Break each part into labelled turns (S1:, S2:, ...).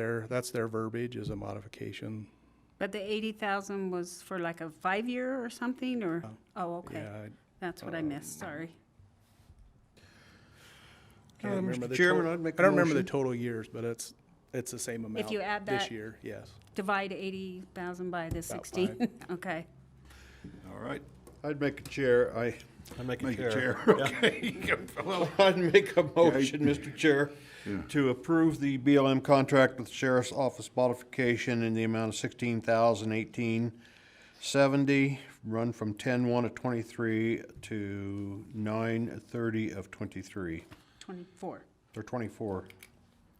S1: Their, that's their verbiage is a modification.
S2: But the eighty thousand was for like a five-year or something, or, oh, okay,
S3: Uh,
S1: Yeah, I-
S2: that's what I missed, sorry.
S1: I
S3: Uh,
S1: can't remember
S3: Mr.
S1: the
S3: Chairman,
S1: tot-
S3: I'd make a
S1: I don't remember the
S3: motion.
S1: total years, but it's, it's the same amount.
S2: you add
S1: This
S2: that-
S1: year, yes.
S2: Divide eighty thousand by the sixteen, okay.
S3: All right.
S4: I'd make a chair, I.
S5: I make
S3: Make a chair,
S5: Yeah.
S3: okay. Well,
S4: I'd make a motion, Mr. Chair,
S3: Yeah.
S4: to approve the BLM contract with Sheriff's Office modification in the amount of sixteen thousand eighteen seventy, run from ten-one of twenty-three to nine-thirty of twenty-three,
S2: Twenty-four,
S4: or twenty-four.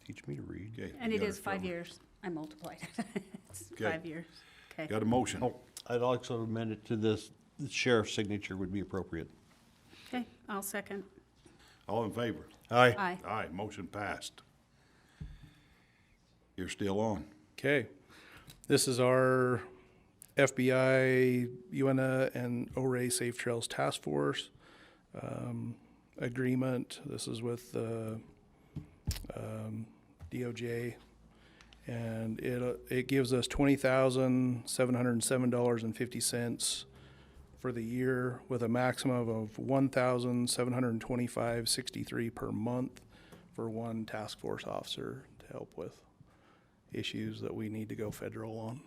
S4: Teach me to read.
S3: Okay,
S2: and
S3: we
S2: it
S3: got
S2: is five
S3: covered.
S2: years, I multiplied it, it's
S3: Okay.
S2: five years, okay.
S3: Got a motion.
S4: Oh, I'd also amend it to this, the sheriff's signature would be appropriate.
S2: Okay, I'll second,
S3: All in favor?
S5: Aye.
S2: aye.
S3: Aye, motion passed. You're still on.
S1: Okay. This is our FBI, UNA, and ORA Safe Trails Task Force um, agreement. This is with the um, DOJ. And it, uh, it gives us twenty thousand, seven hundred and seven dollars and fifty cents for the year with a maximum of one thousand, seven hundred and twenty-five, sixty-three per month for one task force officer to help with issues that we need to go federal on.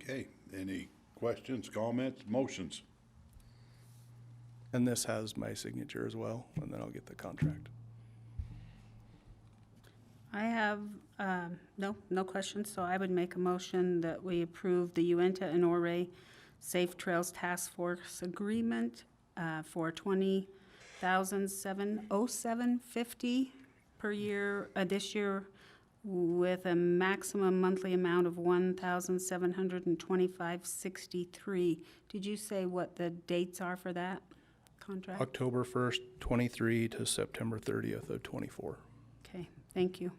S3: Okay, any questions, comments, motions?
S1: And this has my signature as well, and then I'll get the contract.
S2: I have, um, no, no questions, so I would make a motion that we approve the Uinta and Ouray Safe Trails Task Force Agreement uh, for twenty thousand seven oh seven fifty per year, uh, this year, with a maximum monthly amount of one thousand seven hundred and twenty-five sixty-three. Did you say what the dates are for that contract?
S1: October first, twenty-three to September thirtieth of twenty-four.
S2: Okay, thank you.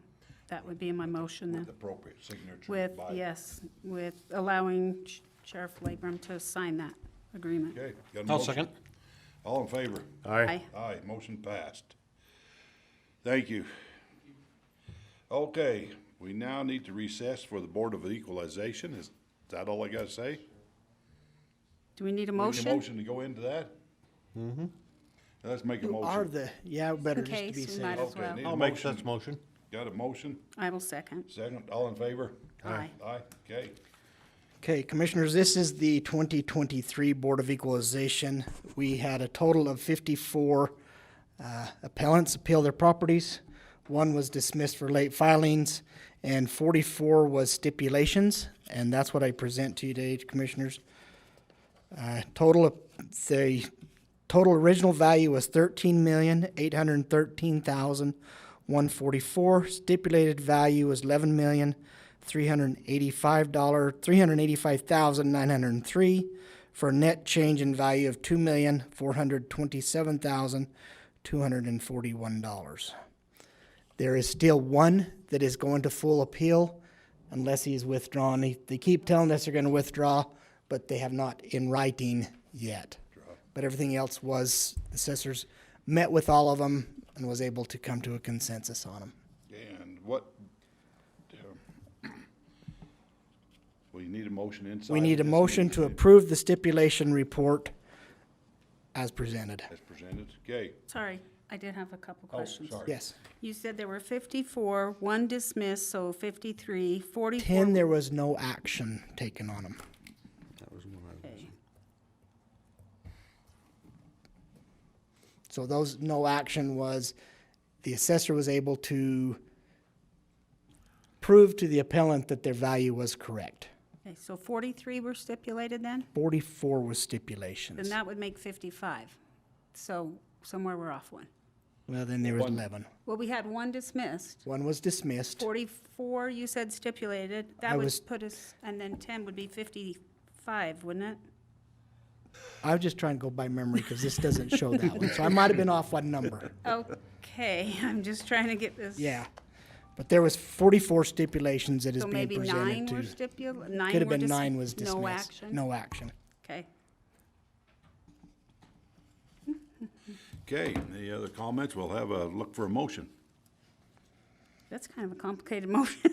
S2: That would be my motion then.
S3: With appropriate signature.
S2: With,
S3: by-
S2: yes, with allowing Sh- Sheriff Labram to sign that agreement.
S3: Okay. got a
S5: I'll
S3: motion.
S5: second.
S3: All in favor?
S2: Aye.
S3: Aye, motion passed. Thank you. Okay, we now need to recess for the Board of Equalization. Is that all I gotta say? We need
S2: Do we need a
S3: a
S2: motion?
S3: Motion to go into that? Mm-hmm. Let's make a
S5: You are
S3: motion.
S5: the, yeah, better
S2: In
S5: just to be
S2: case, we might
S5: safe.
S2: as
S3: Okay,
S2: well.
S3: need a
S4: I'll make such
S3: motion.
S4: motion.
S3: Got a motion?
S2: I will second.
S3: Second, all in favor?
S2: Aye.
S3: Aye, okay.
S5: Okay, Commissioners, this is the 2023 Board of Equalization. We had a total of 54 uh, appellants appeal their properties. One was dismissed for late filings, and 44 was stipulations, and that's what I present to you today, Commissioners. Uh, Total, of- the total original value was thirteen million, eight hundred and thirteen thousand, one forty-four. Stipulated value was eleven million, three hundred and eighty-five dollar, three hundred and eighty-five thousand, nine hundred and three, for a net change in value of two million, four hundred twenty-seven thousand, two hundred and forty-one dollars. There is still one that is going to full appeal unless he is withdrawn. They, they keep telling us they're going to withdraw, but they have not in writing yet. But everything else was, assessors met with all of them and was able to come to a consensus on them.
S3: And what? um, We need a motion inside.
S5: We need a
S3: this
S5: motion to
S3: meeting
S5: approve the stipulation report as presented.
S3: As presented, okay.
S2: Sorry, I did have a couple
S3: Oh,
S2: questions.
S3: sorry.
S5: Yes.
S2: You said there were 54, one dismissed, so 53, 44.
S5: Ten, there was no action taken on them.
S2: Okay.
S5: So those no action was, the assessor was able to prove to the appellant that their value was correct.
S2: Okay, so 43 were stipulated then?
S5: Forty-four was
S2: Then
S5: stipulations.
S2: that would make 55. So somewhere we're off one.
S5: Well, then there was eleven.
S2: Well, we had one dismissed,
S5: One was dismissed.
S2: 44 you said stipulated.
S5: I
S2: That would
S5: was-
S2: put us, and then 10 would be 55, wouldn't it?
S5: I was just trying to go by memory because this doesn't show that one. So I might have been off one number.
S2: Okay, I'm just trying to get this.
S5: Yeah. But there was forty-four stipulations that is
S2: So
S5: being
S2: maybe nine
S5: presented
S2: were
S5: to.
S2: stipul, nine
S5: Could have
S2: were
S5: been
S2: dis-
S5: nine was dismissed.
S2: No action?
S5: No action.
S2: Okay.
S3: Okay, any other comments? We'll have a look for a motion.
S2: That's kind of a complicated motion.